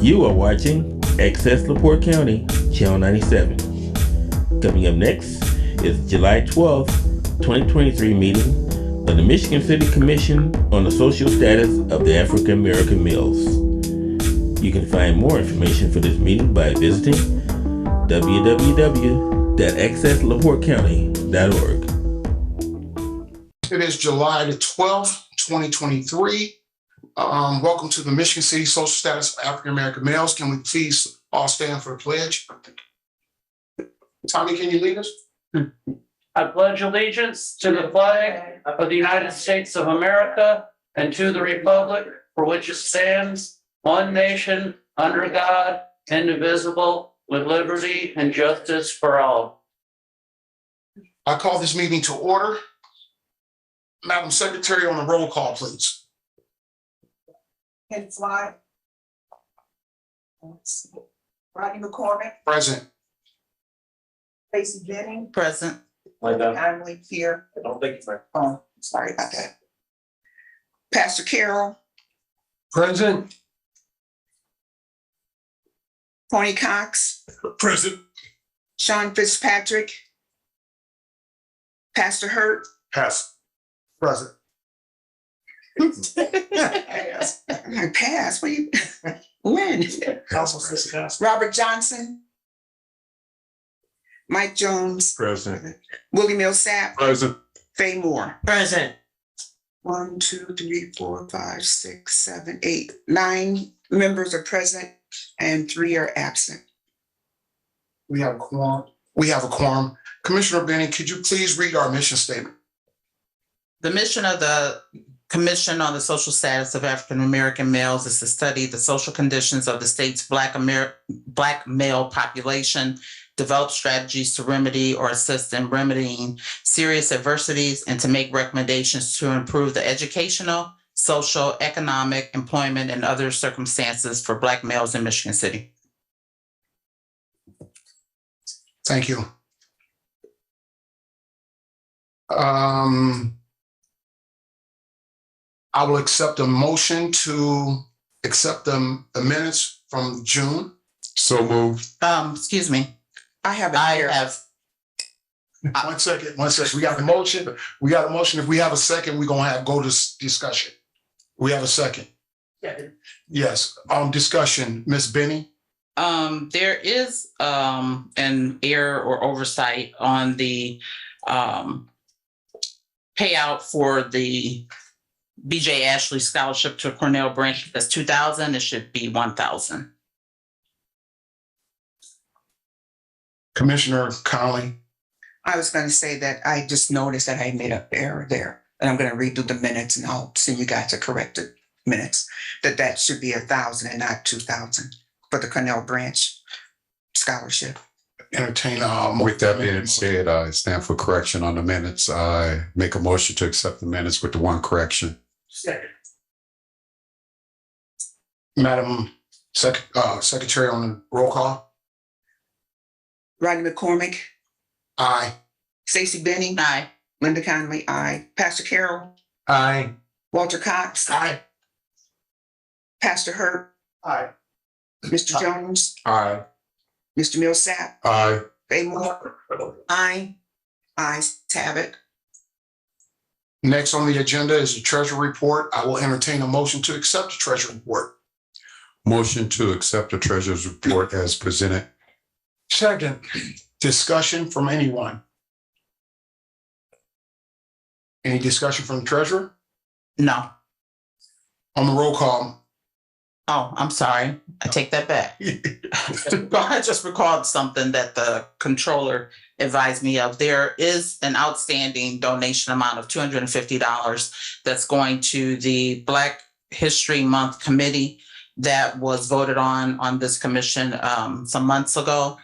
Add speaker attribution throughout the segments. Speaker 1: You are watching Excess LaPorte County, Channel 97. Coming up next is July 12th, 2023 meeting of the Michigan City Commission on the Social Status of the African American Males. You can find more information for this meeting by visiting www.accesslaportecounty.org.
Speaker 2: It is July the 12th, 2023. Um, Welcome to the Michigan City Social Status of African American Males. Can we please all stand for a pledge? Tommy, can you lead us?
Speaker 3: I pledge allegiance to the flag of the United States of America and to the republic for which it stands, one nation, under God, indivisible, with liberty and justice for all.
Speaker 2: I call this meeting to order. Madam Secretary, on the roll call, please.
Speaker 4: Ken Fly. Let's see. Rodney McCormick,
Speaker 2: Present.
Speaker 4: Tracy Jennings,
Speaker 5: Present.
Speaker 4: I'm like here. I don't think it's my. Oh, sorry about that. Pastor Carol,
Speaker 2: Present.
Speaker 4: Tony Cox,
Speaker 2: Present.
Speaker 4: Sean Fitzpatrick, Pastor Hurt,
Speaker 2: Pass. Present.
Speaker 4: Pass. Pass, what you, when?
Speaker 2: Council President.
Speaker 4: Robert Johnson, Mike Jones,
Speaker 2: Present.
Speaker 4: Willie Millsap,
Speaker 2: Present.
Speaker 4: Fay Moore.
Speaker 5: Present.
Speaker 4: One, two, three, four, five, six, seven, eight, nine members are present and three are absent.
Speaker 2: We have a quorum. We have a quorum. Commissioner Benning, could you please read our mission statement?
Speaker 5: The mission of the Commission on the Social Status of African American Males is to study the social conditions of the state's Black Amer- Black male population, develop strategies to remedy or assist in remedying serious adversities, and to make recommendations to improve the educational, social, economic, employment, and other circumstances for Black males in Michigan City.
Speaker 2: Thank you. Um, I will accept a motion to accept the the minutes from June.
Speaker 6: So moved.
Speaker 5: Um, excuse me,
Speaker 4: I have it
Speaker 5: I
Speaker 4: here.
Speaker 5: have,
Speaker 2: Uh, One second, one second. We got a motion. We got a motion. If we have a second, we're gonna have, go to s- discussion. We have a second. Yes, um, discussion, Ms. Benny,
Speaker 5: Um, there is, um, an error or oversight on the, um, payout for the BJ Ashley Scholarship to Cornell Branch. That's two thousand. It should be one thousand.
Speaker 2: Commissioner Conley.
Speaker 4: I was gonna say that I just noticed that I made an error there. And I'm gonna redo the minutes and I'll send you guys the corrected minutes. That that should be a thousand and not two thousand for the Cornell Branch scholarship.
Speaker 2: entertain uh mo-
Speaker 6: With that being said, I stand for correction on the minutes. I make a motion to accept the minutes with the one correction.
Speaker 2: Madam Sec- uh Secretary on the roll call.
Speaker 4: Rodney McCormick,
Speaker 2: Aye.
Speaker 4: Stacy Benning,
Speaker 5: Aye.
Speaker 4: Linda Conley, I, Pastor Carol,
Speaker 2: Aye.
Speaker 4: Walter Cox,
Speaker 2: Aye.
Speaker 4: Pastor Hurt,
Speaker 2: Aye.
Speaker 5: Uh,
Speaker 4: Mr. Jones,
Speaker 2: Aye.
Speaker 4: Mr. Millsap,
Speaker 6: Aye.
Speaker 4: Fay Moore. Aye. Ayes have it.
Speaker 2: Next on the agenda is the treasury report. I will entertain a motion to accept the treasury report.
Speaker 6: Motion to accept the treasurer's report as presented.
Speaker 2: Second. Discussion from anyone? Any discussion from the treasurer?
Speaker 5: No.
Speaker 2: On the roll call,
Speaker 5: Oh, I'm sorry. I take that back. I just recalled something that the controller advised me of. There is an outstanding donation amount of two hundred and fifty dollars that's going to the Black History Month Committee that was voted on on this commission um, some months ago,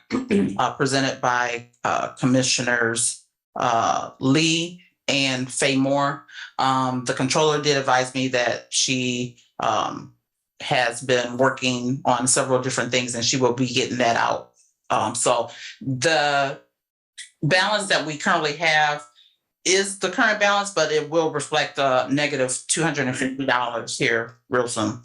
Speaker 5: uh, presented by uh, Commissioners uh, Lee and Fay Moore. Um, the controller did advise me that she um, has been working on several different things and she will be getting that out. Um, so the balance that we currently have is the current balance, but it will reflect a negative two hundred and fifty dollars here real soon.